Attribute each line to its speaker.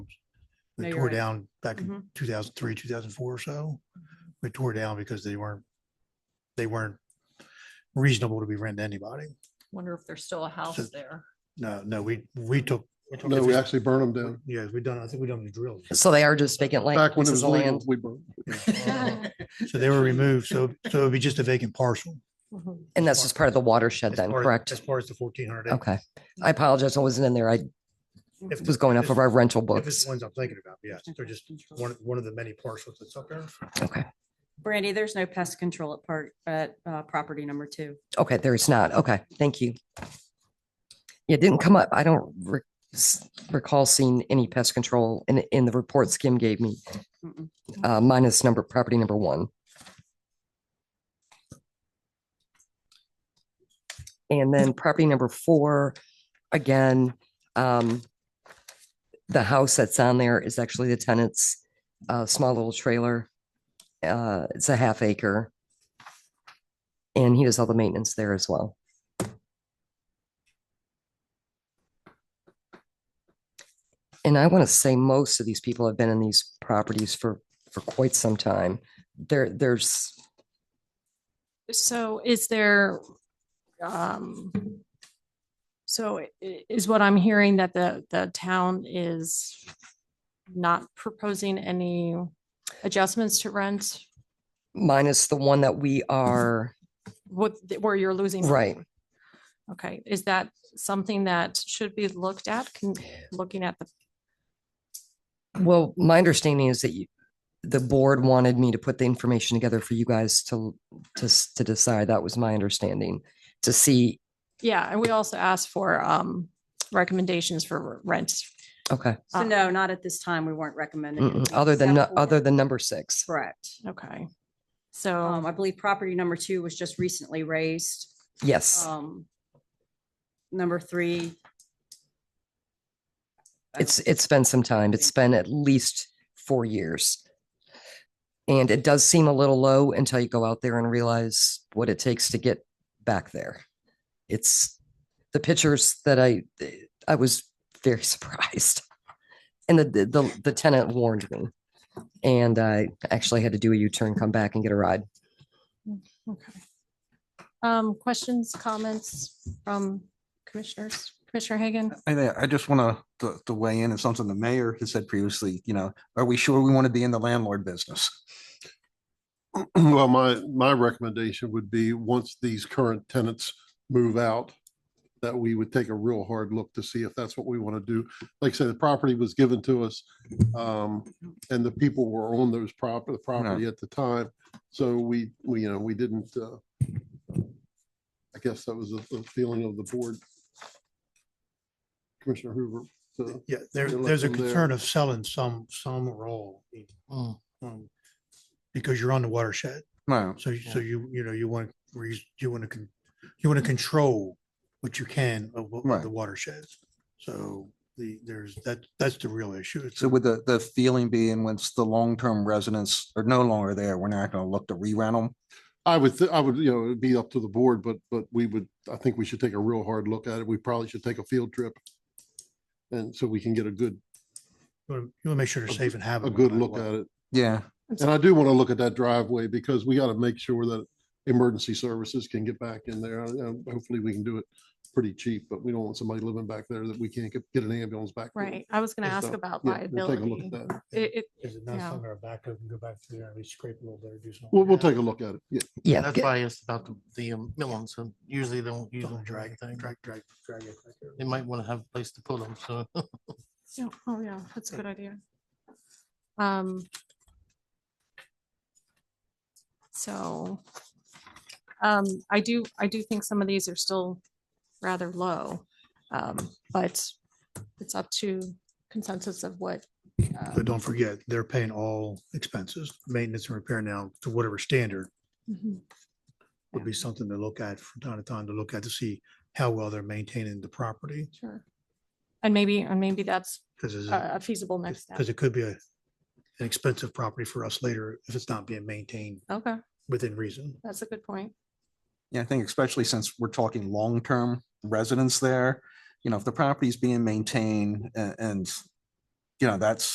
Speaker 1: No,
Speaker 2: They
Speaker 1: you're
Speaker 2: tore
Speaker 1: right.
Speaker 2: down back in
Speaker 1: Mhm.
Speaker 2: two thousand three, two thousand four or so. They tore down because they weren't, they weren't reasonable to be rented to anybody.
Speaker 1: Wonder if there's still a house there.
Speaker 2: No, no, we, we took. took
Speaker 3: No, we
Speaker 2: everything.
Speaker 3: actually burned them down.
Speaker 2: Yes, we done, I think we done the drills.
Speaker 4: So they are just vacant land.
Speaker 3: Back when it was
Speaker 4: pieces of
Speaker 3: legal,
Speaker 4: land.
Speaker 3: we burned.
Speaker 2: So they were removed. So, so it'd be just a vacant parcel.
Speaker 4: And that's just part of the watershed
Speaker 2: as
Speaker 4: then,
Speaker 2: far as-
Speaker 4: correct?
Speaker 2: As far as the fourteen hundred.
Speaker 4: Okay. I apologize. I wasn't in there. I
Speaker 2: If
Speaker 4: was going off of our rental
Speaker 2: If it's
Speaker 4: books.
Speaker 2: the ones I'm thinking about, yes, they're just one, one of the many parcels that's up there.
Speaker 4: Okay.
Speaker 5: Brandy, there's no pest control at part, at uh, property number two.
Speaker 4: Okay, there is not. Okay, thank you. Yeah, It didn't come up. I don't re- s- recall seeing any pest control in, in the report Skim gave me.
Speaker 5: Mm-mm.
Speaker 4: Uh, minus number, property number one. And then property number four, again, um, the house that's on there is actually the tenant's, uh, small little trailer. Uh, it's a half acre. And he does all the maintenance there as well. And I want to say most of these people have been in these properties for, for quite some time. There, there's,
Speaker 6: So is there, um, so i- i- is what I'm hearing that the, the town is not proposing any adjustments to rent
Speaker 4: minus the one that we are,
Speaker 6: what, where you're losing? money?
Speaker 4: right.
Speaker 6: Okay, is that something that should be looked at, Can- looking at the,
Speaker 4: Well, my understanding is that you, the board wanted me to put the information together for you guys to, to, s- to decide. That was my understanding. To see,
Speaker 6: yeah, and we also asked for, um, recommendations for rent.
Speaker 4: okay,
Speaker 5: So
Speaker 6: Uh,
Speaker 5: no, not at this time. We weren't recommending.
Speaker 4: Uh-huh. mm-mm,
Speaker 5: anything
Speaker 4: other than, nu-
Speaker 5: except for-
Speaker 4: other Oh. than number six.
Speaker 5: Correct.
Speaker 6: Okay,
Speaker 5: Um,
Speaker 6: so,
Speaker 5: I believe property number two was just recently raised.
Speaker 4: Yes.
Speaker 5: Um, number three.
Speaker 4: It's, it's been some time. It's been at least four years. And it does seem a little low until you go out there and realize what it takes to get back there. It's the pictures that I, I was very surprised. And the, the- the, the tenant warned me. And I actually had to do a U-turn, come back and get a ride.
Speaker 6: okay. Um, questions, comments from commissioners? Commissioner Hagan?
Speaker 7: I, think- I just want to, to weigh in on something the mayor has said previously, you know, are we sure we want to be in the landlord business?
Speaker 3: Well, my, my recommendation would be, once these current tenants move out, that we would take a real hard look to see if that's what we want to do. Like I said, the property was given to us. um, And the people were on those property, the property at the time. So we, we, you know, we didn't, uh, I guess that was the the feeling of the board. Commissioner Hoover. so-
Speaker 2: Yeah, there,
Speaker 3: You're
Speaker 2: there's a
Speaker 3: looking there.
Speaker 2: concern of selling some, some role. um, Because you're on the watershed.
Speaker 7: No,
Speaker 2: So, you- so you, you know, you want, you want to, you want to control what you can of what- of
Speaker 7: Right.
Speaker 2: the watershed. So the, there's, that, that's the real issue. It's
Speaker 7: so with the, the feeling being once the long-term residents are no longer there, we're not going to look to re-rent them.
Speaker 3: I would, thi- I would, you know, it'd be up to the board, but, but we would, I think we should take a real hard look at it. We probably should take a field trip. And so we can get a good,
Speaker 2: You want to make sure they're safe and have
Speaker 3: a good look at it.
Speaker 7: Yeah,
Speaker 3: And I do want to look at that driveway because we got to make sure that emergency services can get back in there. And Hopefully we can do it pretty cheap, but we don't want somebody living back there that we can't get, get an ambulance back. to.
Speaker 6: Right, I was gonna
Speaker 3: And
Speaker 6: ask
Speaker 3: so,
Speaker 6: about
Speaker 3: yeah, we'll take a look
Speaker 6: liability.
Speaker 3: at that.
Speaker 6: It, it,
Speaker 2: Is it not
Speaker 6: Yeah.
Speaker 2: somewhere back up and go back through there and we scrape a little bit or do something?
Speaker 3: We'll, we'll take a look at it. Yeah.
Speaker 4: Yeah.
Speaker 8: That's
Speaker 4: get-
Speaker 8: why I asked about the, the um, millings, and usually they don't use
Speaker 2: Don't
Speaker 8: them for
Speaker 2: Drag,
Speaker 8: anything.
Speaker 2: drag, drag, drag it back there.
Speaker 8: They might want to have a place to put them, so.
Speaker 6: yeah, oh yeah, that's a good idea. Um. So. Um, I do, I do think some of these are still rather low, um, but it's up to consensus of what. uh,
Speaker 2: But don't forget, they're paying all expenses, maintenance and repair now to whatever standard
Speaker 6: mhm.
Speaker 2: would be something to look at from time to time to look at to see how well they're maintaining the property.
Speaker 6: Sure. And maybe, and maybe that's
Speaker 2: Because
Speaker 6: a a feasible Uh, next step.
Speaker 2: because it could be a, an expensive property for us later if it's not being maintained
Speaker 6: Okay,
Speaker 2: within reason.
Speaker 6: that's a good point.
Speaker 7: yeah, I think especially since we're talking long-term residents there, you know, if the property's being maintained a- and, you know, that's